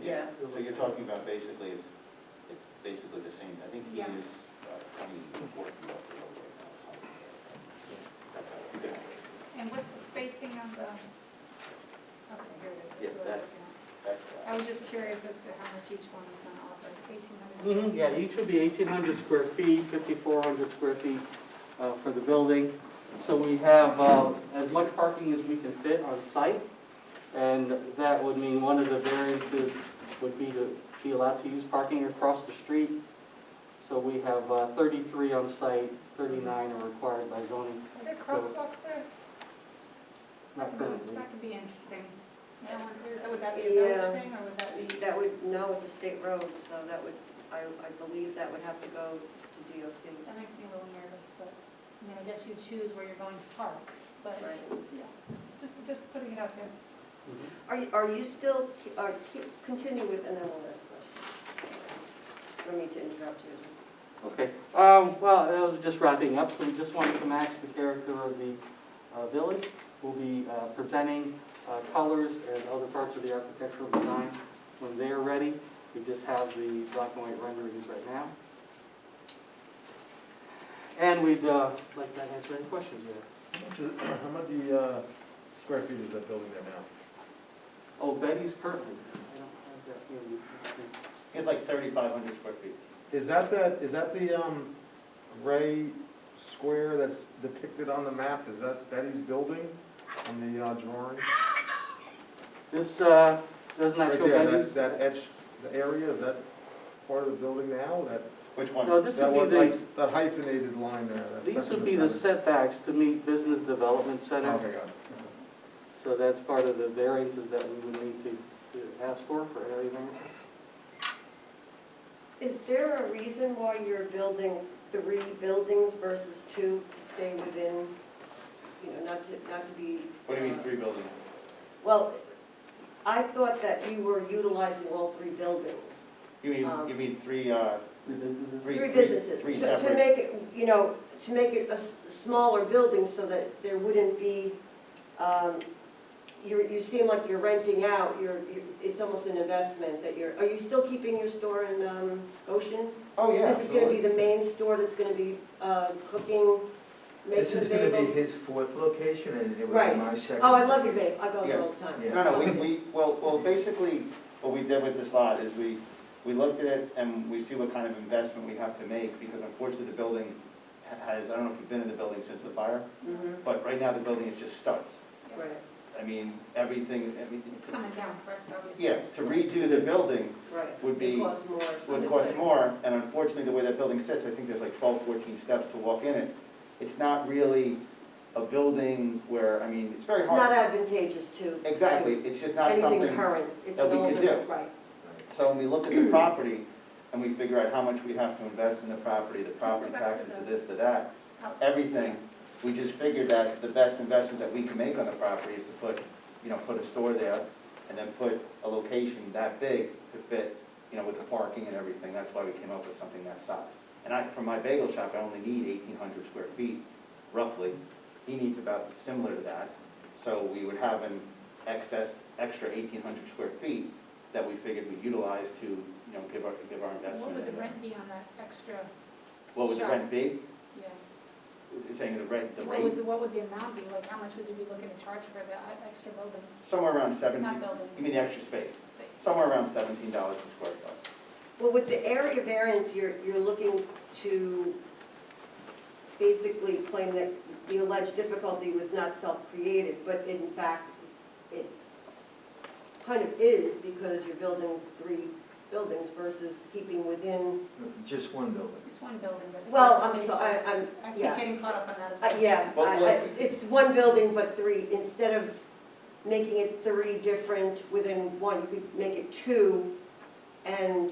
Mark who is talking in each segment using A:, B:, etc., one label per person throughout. A: Yeah.
B: So you're talking about basically, it's basically the same, I think he
A: Yeah.
B: is uh, twenty-four feet off the road right now. or something like that. That's how-
A: And what's the spacing on the, okay, here it is.
B: Yeah,
A: That's
B: that-
A: what I'm looking at.
B: that's, uh,
A: I was just curious as to how much each one is going to offer, eighteen
C: Mhm,
A: hundred.
C: Yeah, each would be 1,800 square feet, 5,400 square feet uh, for the building. So we have uh, as much parking as we can fit on site, and that would mean one of the variances would be to be allowed to use parking across the street. So we have uh, 33 on site, 39 are required by zoning,
A: Are there crosswalks there?
C: not
B: Mm-hmm.
C: currently.
A: That could be interesting. That one here, Would that be a village
D: Yeah.
A: thing, or would that be?
D: That would, no, it's a state road, so that would, I, I believe that would have to go to DOT.
A: That makes me a little nervous, but, I mean, I guess you choose where you're going to park, but,
D: Right.
A: yeah, just, just putting it out there.
C: Mm-hmm.
D: Are, you- are you still, are, keep- continue with, and then we'll ask questions. No need to interrupt you.
C: Okay, um, well, I was just wrapping up, so we just wanted to match the character of the, uh, village. We'll be, uh, presenting, uh, colors and other parts of the architectural design when they're ready. We just have the black and white renderings right now. And we'd, uh, like to answer any questions you have.
E: How much the, uh, square feet is that building there now?
C: Oh, Betty's currently, I don't have that here. You can see.
B: It's like thirty-five hundred square feet.
E: Is that that, is that the, um, gray square that's depicted on the map, is that Betty's building on the, uh, drawing?
C: This, uh, doesn't that
E: Right
C: show
E: there, that-
C: Betty's?
E: That edge, the area, is that part of the building now, that,
B: Which
C: No,
B: one?
C: this
E: that
C: would
E: one,
C: be
E: like,
C: the,
E: that hyphenated line there, that's
C: these
E: second
C: would
E: to
C: be the
E: seventh.
C: setbacks to meet Business Development Center.
E: Okay, got it.
C: So that's part of the variances that we would need to to ask for, for area variance.
D: Is there a reason why you're building three buildings versus two to stay within, you know, not to, not to be?
B: What do you mean,
D: uh,
B: three buildings?
D: Well, I thought that you were utilizing all three buildings.
B: You mean,
D: Um,
B: you mean three, uh,
C: The businesses?
B: three?
D: Three businesses.
B: Three
D: To- To
B: separate,
D: make it, you know, to make it a s- smaller building so that there wouldn't be, um, you you seem like you're renting out, you're, you- it's almost an investment that you're, are you still keeping your store in um, Ocean?
B: oh, yeah,
D: This is going to be
B: absolutely.
D: the main store that's going to be uh, cooking,
F: This
D: making
F: is gonna be
D: bagels?
F: his fourth location and it would
D: Right.
F: be my second.
D: Oh, I love your bagel, I go
B: Yeah.
D: there all the time.
F: Yeah.
B: No, no, we, we, well, well, basically, what we did with this lot is we, we looked at it and we see what kind of investment we have to make, because unfortunately, the building ha- has, I don't know if you've been in the building since the fire,
D: Mhm,
B: But right now, the building is just studs.
D: Right,
B: I mean, everything, I mean,
A: It's coming down, correct, obviously?
B: yeah, to redo the building
D: right.
B: Would be-
D: It costs more.
B: would cost
D: Understood.
B: more, and unfortunately, the way that building sits, I think there's like 12, 14 steps to walk in it. It's not really a building where, I mean, it's very
D: It's
B: hard.
D: not advantageous to.
B: Exactly, it's just
D: to
B: not
D: Anything
B: something.
D: current. It's
B: that
D: an
B: we could
D: older-
B: do.
D: Right.
B: So when we look at the property and we figure out how much we have to invest in the property, the property
A: Go back to
B: taxes,
A: the-
B: to this, to that,
A: Outs-
B: everything, we just figured that the best investment that we can make on the property is to put, you know, put a store there and then put a location that big to fit, you know, with the parking and everything. That's why we came up with something that size. And I, for my bagel shop, I only need eighteen hundred square feet roughly. He needs about similar to that. So we would have an excess, extra eighteen hundred square feet that we figured we'd utilize to, you know, give our, give our
A: Yeah. What
B: investment.
A: would the
B: in.
A: rent be on that extra,
B: What would the
A: Sure.
B: rent be?
A: yeah?
B: Saying the rent, the
A: What would,
B: rate,
A: the- what would the amount be, like, how much would you be looking to charge for the uh, extra building,
B: somewhere around seventy,
A: not building,
B: you mean the extra space?
A: space?
B: Somewhere around seventeen dollars a square foot.
D: Well, with the area variance, you're, you're looking to basically claim that the alleged difficulty was not self-created, but in fact, it kind of is because you're building three buildings versus keeping within,
F: Just one building.
A: It's one building, but. it's
D: well,
A: not
D: I'm
A: spaces.
D: sorry, I'm,
A: I keep
D: yeah.
A: getting caught up on that as
D: Uh,
A: well.
D: Yeah,
B: Well,
D: I- I-
B: well-
D: it's one building but three, instead of making it three different within one, you could make it two and,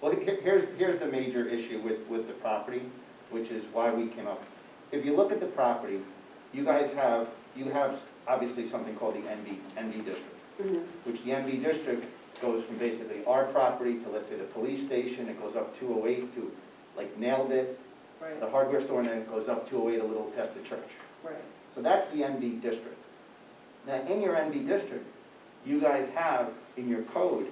B: Well, he- here's, here's the major issue with, with the property, which is why we came up. If you look at the property, you guys have, you have obviously something called the NB, NB district,
D: mhm,
B: which the NB district goes from basically our property to, let's say, the police station, it goes up two oh eight to, like, nailed it,
D: right,
B: the hardware store, and then it goes up two oh eight a little past the church.
D: right.
B: So that's the NB district. Now, in your NB district, you guys have in your code